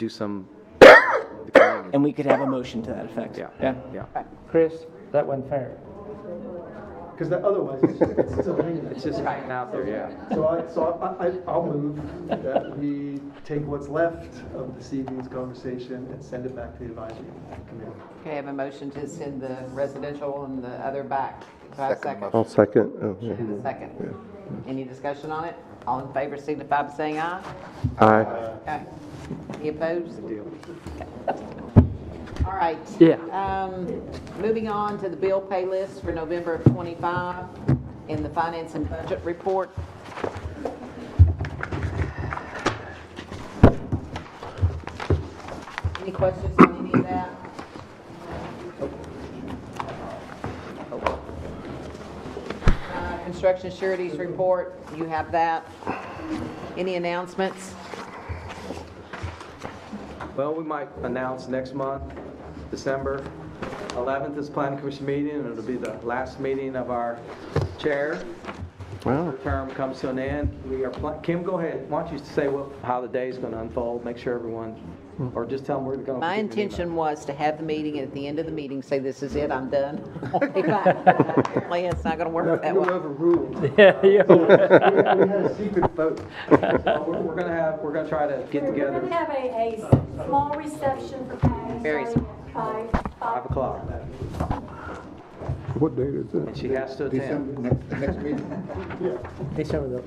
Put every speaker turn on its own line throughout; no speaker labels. do some,
And we could have a motion to that effect.
Yeah.
Yeah?
yeah.
Chris, that went fair.
Because that otherwise, it's just- it's still hanging there.
It's just hanging out there, yeah.
So I, so I, I- I'll move that we take what's left of this evening's conversation and send it back to the advisory committee.
Okay, I have a motion to send the residential and the other back. Do I have a second?
I'll second. Oh, yeah.
Do the second. Any discussion on it? All in favor signify by saying aye.
Aye.
Okay. Any opposed? Deal. All right.
Yeah.
Um, moving on to the bill pay list for November of twenty-five in the finance and budget report. Any questions on any of that? Uh, Construction sureties report, you have that. Any announcements?
Well, we might announce next month, December 11th is planning commission meeting, and it'll be the last meeting of our chair.
Wow.
Her term comes to an end. We are, pla- Kim, go ahead. Why don't you say what, how the day's going to unfold, make sure everyone, or just tell them we're going to.
My intention was to have the meeting, and at the end of the meeting, say, this is it, I'm done. Apparently, it's not gonna work that
You
way.
overruled. We
Yeah,
we had a secret vote.
We're going to have, we're going to try to get
We're
together
going to have a, a small reception for parents.
Very
starting at Five.
5 o'clock,
What date is
and
that?
she has to attend.
December, next, next meeting,
December
December,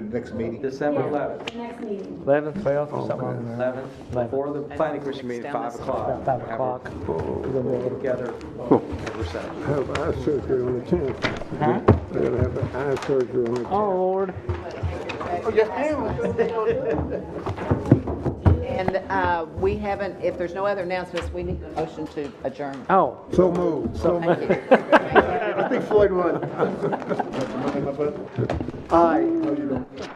next meeting.
December
Yeah,
11th,
The next meeting.
eleventh, twelfth, or something.
11th, before the planning commission meeting, 5 o'clock.
Five o'clock.
We'll get together, have reception.
Have eye surgery on the tenth. I gotta have eye surgery on the tenth.
Oh, Lord.
And uh, we haven't, if there's no other announcements, we need a motion to adjourn.
Oh.
So moved, so moved.
Thank you.
I think Floyd won.
Remember my brother?
Aye.
No, you don't.